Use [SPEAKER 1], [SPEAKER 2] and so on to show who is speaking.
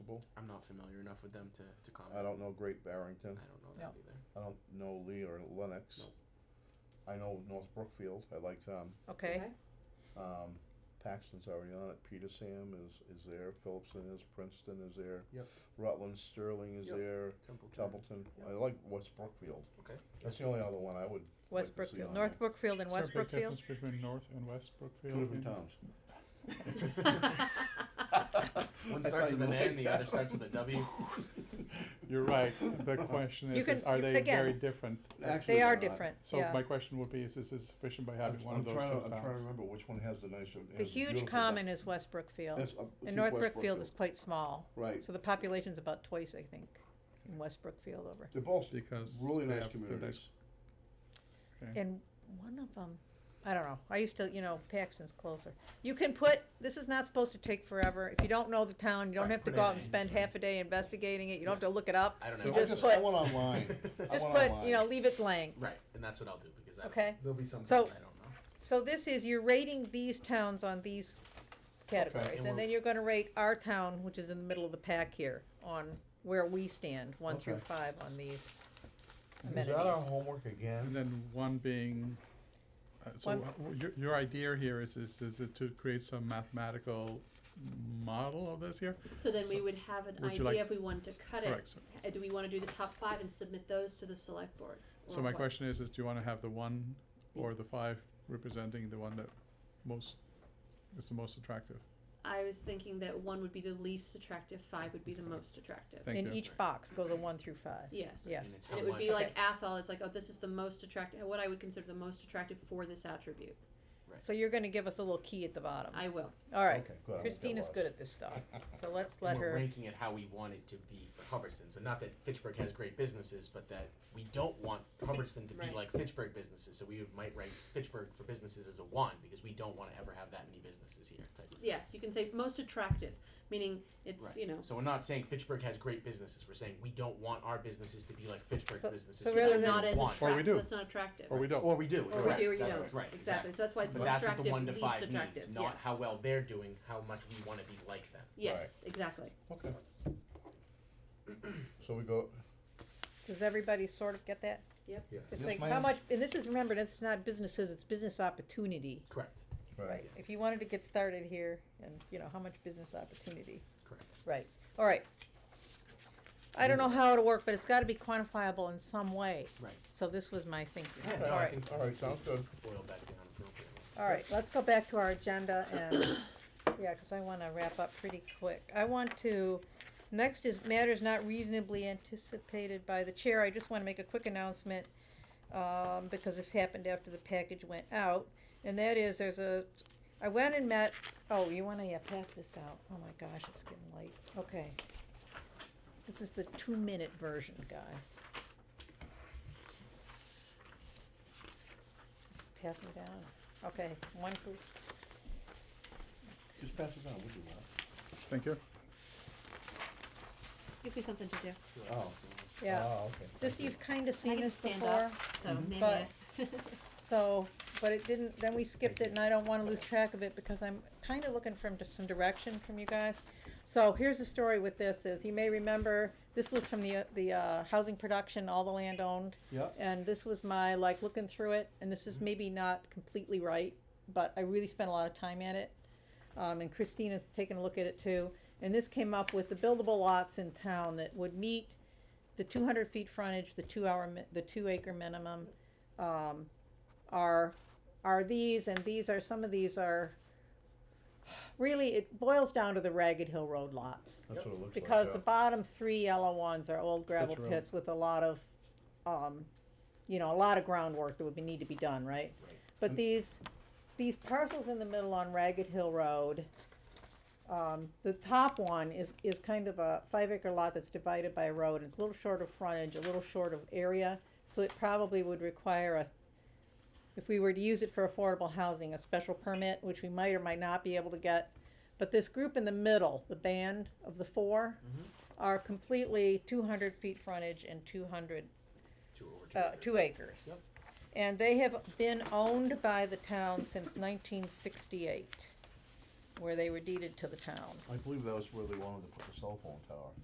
[SPEAKER 1] people.
[SPEAKER 2] I'm not familiar enough with them to, to comment.
[SPEAKER 1] I don't know Great Barrington.
[SPEAKER 2] I don't know
[SPEAKER 3] No.
[SPEAKER 2] that either.
[SPEAKER 1] I don't know Lee or Lennox.
[SPEAKER 2] Nope.
[SPEAKER 1] I know North Brookfield. I like them.
[SPEAKER 3] okay?
[SPEAKER 1] Um, Paxton's already on it. Peter Sam is, is there. Phillipson is. Princeton is there.
[SPEAKER 2] Yep.
[SPEAKER 1] Rutland Sterling is
[SPEAKER 2] Yep.
[SPEAKER 1] there.
[SPEAKER 2] Templeton.
[SPEAKER 1] Templeton.
[SPEAKER 2] Yep.
[SPEAKER 1] I like West Brookfield.
[SPEAKER 2] Okay.
[SPEAKER 1] That's the only other one I would. like to
[SPEAKER 3] West
[SPEAKER 1] see
[SPEAKER 3] Brookfield,
[SPEAKER 1] on
[SPEAKER 3] North Brookfield and
[SPEAKER 4] Is there a
[SPEAKER 3] West
[SPEAKER 4] big
[SPEAKER 3] Brookfield?
[SPEAKER 4] difference between North and West Brookfield?
[SPEAKER 1] there. Two different
[SPEAKER 4] in-
[SPEAKER 1] towns.
[SPEAKER 2] One
[SPEAKER 1] I thought
[SPEAKER 2] starts
[SPEAKER 1] you
[SPEAKER 2] with an
[SPEAKER 1] liked
[SPEAKER 2] N, the
[SPEAKER 1] that
[SPEAKER 2] other starts with a W.
[SPEAKER 4] You're right. The question
[SPEAKER 3] You
[SPEAKER 4] is, is
[SPEAKER 3] can-
[SPEAKER 4] are they
[SPEAKER 3] again,
[SPEAKER 4] very different?
[SPEAKER 1] Actually,
[SPEAKER 3] They are
[SPEAKER 1] they're not.
[SPEAKER 3] different,
[SPEAKER 4] So my
[SPEAKER 3] yeah.
[SPEAKER 4] question would be, is this is sufficient by
[SPEAKER 1] I'm
[SPEAKER 4] having one of
[SPEAKER 1] I'm
[SPEAKER 4] those two
[SPEAKER 1] trying
[SPEAKER 4] towns?
[SPEAKER 1] to- I'm trying to remember which one has the nicer.
[SPEAKER 3] The
[SPEAKER 1] has beautiful
[SPEAKER 3] huge
[SPEAKER 1] down-
[SPEAKER 3] common is West Brookfield,
[SPEAKER 1] That's, uh, keep
[SPEAKER 3] and North
[SPEAKER 1] West
[SPEAKER 3] Brookfield is quite small,
[SPEAKER 1] Right.
[SPEAKER 3] so the population's about twice, I think, in West Brookfield over.
[SPEAKER 1] They're both
[SPEAKER 4] Because
[SPEAKER 1] really
[SPEAKER 4] they
[SPEAKER 1] nice
[SPEAKER 4] have the
[SPEAKER 1] communities.
[SPEAKER 4] Okay.
[SPEAKER 3] And one of them, I don't know, I used to, you know, Paxton's closer. You can put, this is not supposed to take forever. If you don't know the town, you don't
[SPEAKER 2] Right,
[SPEAKER 3] have to
[SPEAKER 2] put
[SPEAKER 3] go
[SPEAKER 2] it
[SPEAKER 3] out and
[SPEAKER 2] in,
[SPEAKER 3] spend
[SPEAKER 2] so-
[SPEAKER 3] half a day investigating it. You don't have to look it up.
[SPEAKER 2] I don't
[SPEAKER 4] So
[SPEAKER 2] know.
[SPEAKER 1] I
[SPEAKER 3] just
[SPEAKER 1] just,
[SPEAKER 3] put-
[SPEAKER 1] I went online. I
[SPEAKER 3] Just
[SPEAKER 1] went
[SPEAKER 3] put,
[SPEAKER 1] online.
[SPEAKER 3] you know, leave it blank,
[SPEAKER 2] right, and that's what I'll do because I,
[SPEAKER 3] okay?
[SPEAKER 2] there'll be something
[SPEAKER 3] So-
[SPEAKER 2] I don't know.
[SPEAKER 3] So this is, you're rating these towns on these
[SPEAKER 2] and
[SPEAKER 3] categories, and
[SPEAKER 2] we're-
[SPEAKER 3] then you're gonna rate our town, which is in the middle of the pack here, on where we stand, one through
[SPEAKER 1] Okay.
[SPEAKER 3] five on these
[SPEAKER 1] Is that our
[SPEAKER 3] amenities.
[SPEAKER 1] homework
[SPEAKER 4] And
[SPEAKER 1] again?
[SPEAKER 4] then one being, uh, so
[SPEAKER 3] One-
[SPEAKER 4] uh, w- your, your idea here is, is, is it to create some mathematical model of this here?
[SPEAKER 5] So then we
[SPEAKER 4] So,
[SPEAKER 5] would have an
[SPEAKER 4] would you
[SPEAKER 5] idea
[SPEAKER 4] like-
[SPEAKER 5] if we wanted to cut it.
[SPEAKER 4] Correct. So-
[SPEAKER 5] Uh, Do we want to do the top five and submit those to the select board?
[SPEAKER 4] So
[SPEAKER 5] or
[SPEAKER 4] my
[SPEAKER 5] what?
[SPEAKER 4] question is, is do you wanna have the one or the five representing the one that most, is the most attractive?
[SPEAKER 5] I was thinking that one would be the least attractive, five would be the most attractive.
[SPEAKER 4] Thank
[SPEAKER 3] In
[SPEAKER 4] you.
[SPEAKER 3] each box goes a one through five,
[SPEAKER 5] Yes.
[SPEAKER 3] yes.
[SPEAKER 2] And it's
[SPEAKER 5] And
[SPEAKER 2] how
[SPEAKER 5] it would
[SPEAKER 2] much-
[SPEAKER 5] be like
[SPEAKER 3] Okay.
[SPEAKER 5] Athol. It's like, oh, this is the most attractive, what I would consider the most attractive for this attribute.
[SPEAKER 3] So you're gonna give us a little key at the bottom.
[SPEAKER 5] I will.
[SPEAKER 3] All right,
[SPEAKER 1] Okay, good, I won't get
[SPEAKER 3] Christina's
[SPEAKER 1] lost.
[SPEAKER 3] good at this stuff, so let's
[SPEAKER 2] And
[SPEAKER 3] let
[SPEAKER 2] we're
[SPEAKER 3] her,
[SPEAKER 2] ranking it how we want it to be for Hubbardston. So not that Fitchburg has great businesses, but that we don't want Hubbardston to be
[SPEAKER 5] Right.
[SPEAKER 2] like Fitchburg businesses. So we would, might rank Fitchburg for businesses as a one because we don't want to ever have that many businesses here. Type of thing.
[SPEAKER 5] Yes, you can say most attractive, meaning it's,
[SPEAKER 2] Right.
[SPEAKER 5] you know,
[SPEAKER 2] So we're not saying Fitchburg has great businesses. We're saying we don't want our businesses to be like Fitchburg
[SPEAKER 3] So-
[SPEAKER 2] businesses.
[SPEAKER 3] so
[SPEAKER 2] we
[SPEAKER 3] rather
[SPEAKER 5] they're
[SPEAKER 2] don't
[SPEAKER 3] than-
[SPEAKER 5] not as
[SPEAKER 2] want.
[SPEAKER 4] Or we
[SPEAKER 5] attractive.
[SPEAKER 4] do.
[SPEAKER 5] That's not attractive.
[SPEAKER 1] Oh,
[SPEAKER 4] Or we don't.
[SPEAKER 2] Or we do.
[SPEAKER 5] Or we
[SPEAKER 2] correct.
[SPEAKER 5] do or you
[SPEAKER 2] That's
[SPEAKER 5] don't.
[SPEAKER 2] Right.
[SPEAKER 5] Exactly. So that's why it's
[SPEAKER 2] But
[SPEAKER 5] most
[SPEAKER 2] that's what the
[SPEAKER 5] attractive,
[SPEAKER 2] one to
[SPEAKER 5] least
[SPEAKER 2] five means,
[SPEAKER 5] attractive.
[SPEAKER 2] not
[SPEAKER 5] yes.
[SPEAKER 2] how well they're doing, how much we want to be like them.
[SPEAKER 5] Yes, exactly.
[SPEAKER 1] Okay. So we go,
[SPEAKER 3] does everybody sort of get that? It's
[SPEAKER 1] Yes,
[SPEAKER 3] like, how
[SPEAKER 1] ma'am.
[SPEAKER 3] much, and this is, remember, this is not businesses, it's business opportunity.
[SPEAKER 2] Correct.
[SPEAKER 1] right,
[SPEAKER 3] Right, if you wanted to get started here, and, you know, how much business opportunity.
[SPEAKER 2] Correct.
[SPEAKER 3] Right, all right. I don't know how it'll work, but it's gotta be quantifiable in some way,
[SPEAKER 2] Right.
[SPEAKER 3] so this was my thinking.
[SPEAKER 2] Yeah,
[SPEAKER 3] All
[SPEAKER 2] no, I
[SPEAKER 3] right,
[SPEAKER 2] think
[SPEAKER 1] all right, sounds good.
[SPEAKER 2] boil that down appropriately.
[SPEAKER 3] all right, let's go back to our agenda and, yeah, cause I wanna wrap up pretty quick. I want to, next is matters not reasonably anticipated by the chair, I just wanna make a quick announcement, um, because this happened after the package went out, and that is, there's a, I went and met, oh, you wanna, yeah, pass this out, oh my gosh, it's getting late, okay. This is the two-minute version, guys. Just pass them down, okay, one group,
[SPEAKER 1] Just pass it down, we'll do that.
[SPEAKER 4] Thank you.
[SPEAKER 5] Gives me something to do.
[SPEAKER 1] Oh.
[SPEAKER 3] yeah,
[SPEAKER 1] Oh, okay.
[SPEAKER 3] this,
[SPEAKER 1] Thank you.
[SPEAKER 3] you've kinda seen
[SPEAKER 5] can
[SPEAKER 3] this
[SPEAKER 5] stand
[SPEAKER 3] before,
[SPEAKER 5] up. So
[SPEAKER 3] But-
[SPEAKER 5] maybe.
[SPEAKER 3] so, but it didn't, then we skipped it, and I don't wanna lose track of it, because I'm kinda looking for some direction from you guys. So here's the story with this, is you may remember, this was from the, uh, the, uh, housing production, all the land owned,
[SPEAKER 1] Yeah,
[SPEAKER 3] and this was my like looking through it and this is maybe not completely right but i really spent a lot of time at it um, and christina's taken a look at it too and this came up with the buildable lots in town that would meet the two hundred feet frontage, the two hour, mi- the two acre minimum, um, are, are these, and these are, some of these are, really, it boils down to the Ragged Hill Road lots.
[SPEAKER 1] that's what it looks like.
[SPEAKER 3] Because
[SPEAKER 1] yeah.
[SPEAKER 3] the bottom three yellow ones are old gravel
[SPEAKER 1] Pitch road.
[SPEAKER 3] pits with a lot of, um, you know, a lot of groundwork that would be, need to be done, right?
[SPEAKER 2] Right.
[SPEAKER 3] But these, these parcels in the middle on Ragged Hill Road, um, the top one is, is kind of a five acre lot that's divided by a road, and it's a little short of frontage, a little short of area, so it probably would require us, if we were to use it for affordable housing, a special permit, which we might or might not be able to get. But this group in the middle, the band of the four, are completely two hundred feet frontage and two hundred
[SPEAKER 2] Two or two.
[SPEAKER 3] uh,
[SPEAKER 2] acres.
[SPEAKER 3] two acres.
[SPEAKER 2] Yep.
[SPEAKER 3] And they have been owned by the town since nineteen sixty-eight. where they were deeded to the town.
[SPEAKER 1] I believe that was where they wanted to put the cell phone tower.